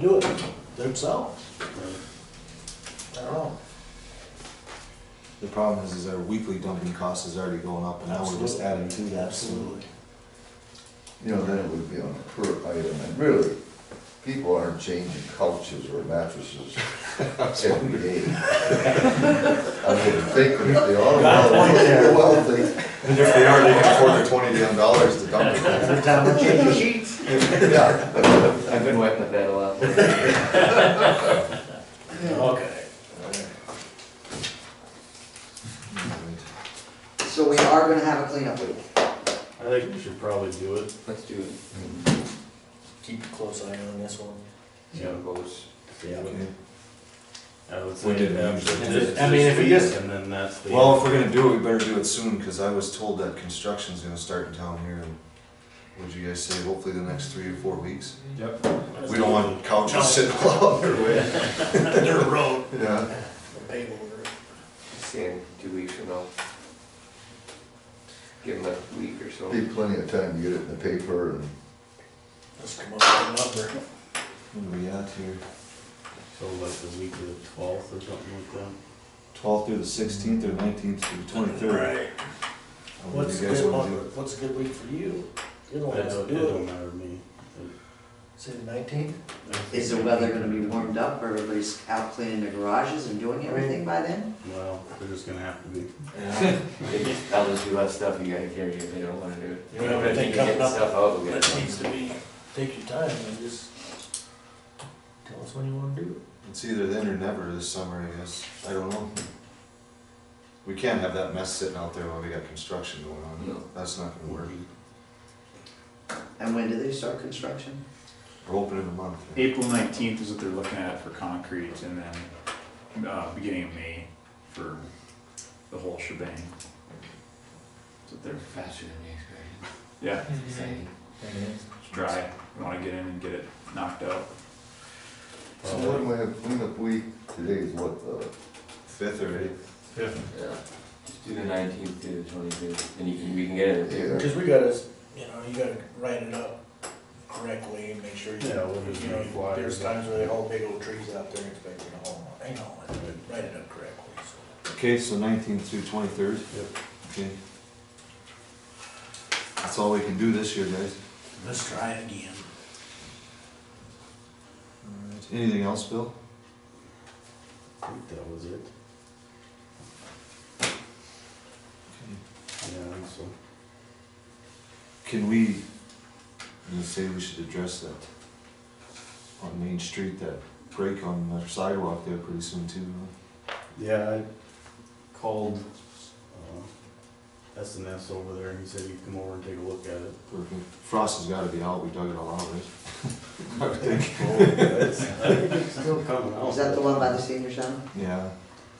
do it themselves. I don't know. The problem is, is our weekly dumping cost is already going up, and now we're just adding to that. Absolutely. You know, then it would be on a per item, and really, people aren't changing couches or mattresses every day. I would think that if they are, well, well, they, And if they are, they can afford the twenty damn dollars to dump it. Every time we change sheets. yeah, I've been wetting the bed a lot. Okay. So we are gonna have a cleanup week. I think we should probably do it. Let's do it. Keep a close eye on this one. Yeah. Yeah. I would say. We didn't after usually do this- it. this I mean, if we week, just- And then that's the. Well, if we're gonna do it, we better do it soon, cause I was told that construction's gonna start in town here in, what'd you guys say, hopefully the next three or four weeks? We don't want No. couches sitting all out their way. Their road, Yeah, the pavement. See in two weeks from now. Give them a week or so. be plenty of time to get it in the paper and Let's come up with a number. what are we at here? So like the week of the twelfth or something like that. Twelfth through the sixteenth or nineteenth through the twenty-third? Right. What's a good month, what's a good week for you? You don't It have to don't, it do don't it. matter to me. Say the nineteenth? I think Is the weather gonna be warmed up, or everybody's out cleaning their garages and doing everything by then? Well, they're just gonna have to be. Yeah. I'll just do less stuff, you gotta carry if they don't wanna do it. You know, everything If you get coming up, Stuff out, we That gotta. needs to be, take your time and just tell us when you wanna do It's either then or never this summer, I guess, I don't know. We can't have that mess sitting out there while we got construction going No. on, that's not gonna work. And when do they start construction? We're open in a month. yeah. April nineteenth is what they're looking at for concrete, and then, uh, beginning of May for the whole shebang. That's what they're, Faster than you expected. yeah, Exciting. it's dry, we wanna get in and get it knocked out. So when we have cleanup week, today is what, uh? the Fifth or eighth? Yeah. Just do the nineteenth to the twenty-fifth, and you can, we can get it. it. Yeah. Cause we gotta, you know, you gotta write it up correctly and make sure you, you Yeah, we'll just make know, flyers. there's times where they haul big old trees out there expecting a whole, lot. I know, but write it up correctly, so. Okay, so nineteenth through twenty-third? Yep. Okay. That's all we can do this year, guys. Let's try it again. Alright, anything else, Bill? I think that was it. Yeah, I think so. Can we, I'm gonna say we should address that on Main Street, that break on the sidewalk there pretty soon too. huh? Yeah, I called, uh, S and S over there and he said he'd come over and take a look at it. Working- Frost has gotta be out, we dug it all out, right? I would think, It's- I think it's Still coming out. Is that the one by the senior center? yeah.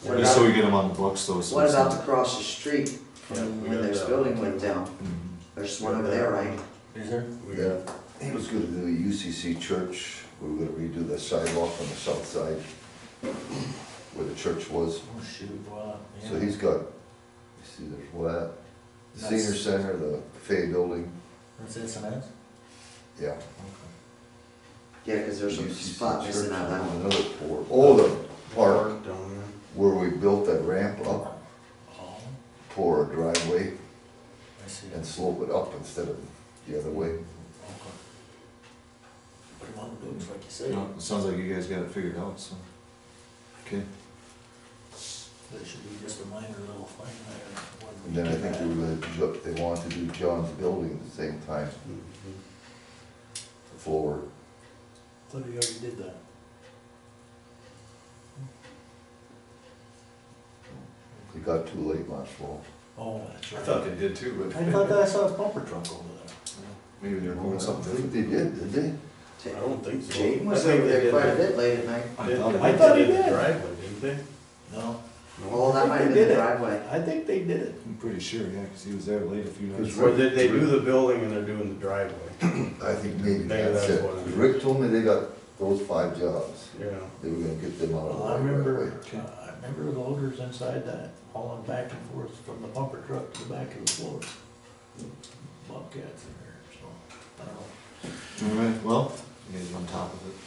What Just so we about, get them on the books though. so what it's about not- across the street Yeah, from we when got this that. building went down? Mhm. There's one over there, right? Is there? We got, He was gonna do the UCC church, we were gonna redo the sidewalk on the south side where the church was. Oh, shoot, wow, yeah. So he's got, you see, there's what, the That's- senior center, the Fay building, That's it, so that's- yeah. Yeah, cause there's a UCC spot missing church, out that one. Another four, oh, the park park down there. where we built that ramp up Oh, for a driveway I see. and slope it up instead of the other way. Okay. Put him on the books, like you said. No, It sounds like you guys got it figured out, so. Okay. That should be just a minor little thing there. when we And then I get think that. they were, look, they wanted to do John's building at the same time, the floor. Thought we already did that. It got too late last fall. Oh, that's I right. thought they did too, I thought that I saw a bumper truck over there. maybe they're going I something think different. they did, did they? I don't think so. Jaden I was think over they there did quite a the- bit late at night. I thought he did. Driveway, didn't they? No, No? Oh, I that think might have they been the did it. driveway. I think they did it. I'm pretty sure, yeah, because he was there late a few nights. It's Or did they do the building and they're doing the driveway? I think maybe Maybe that's that's it. what it is. Rick told me they got those five jobs, Yeah. they were gonna get them out of the well, way. I right remember, away. uh, I remember the loaders inside that hauling back and forth from the bumper truck to the back of the floor. Bobcats in there, so, I don't know. All right, well, you guys are on top of it.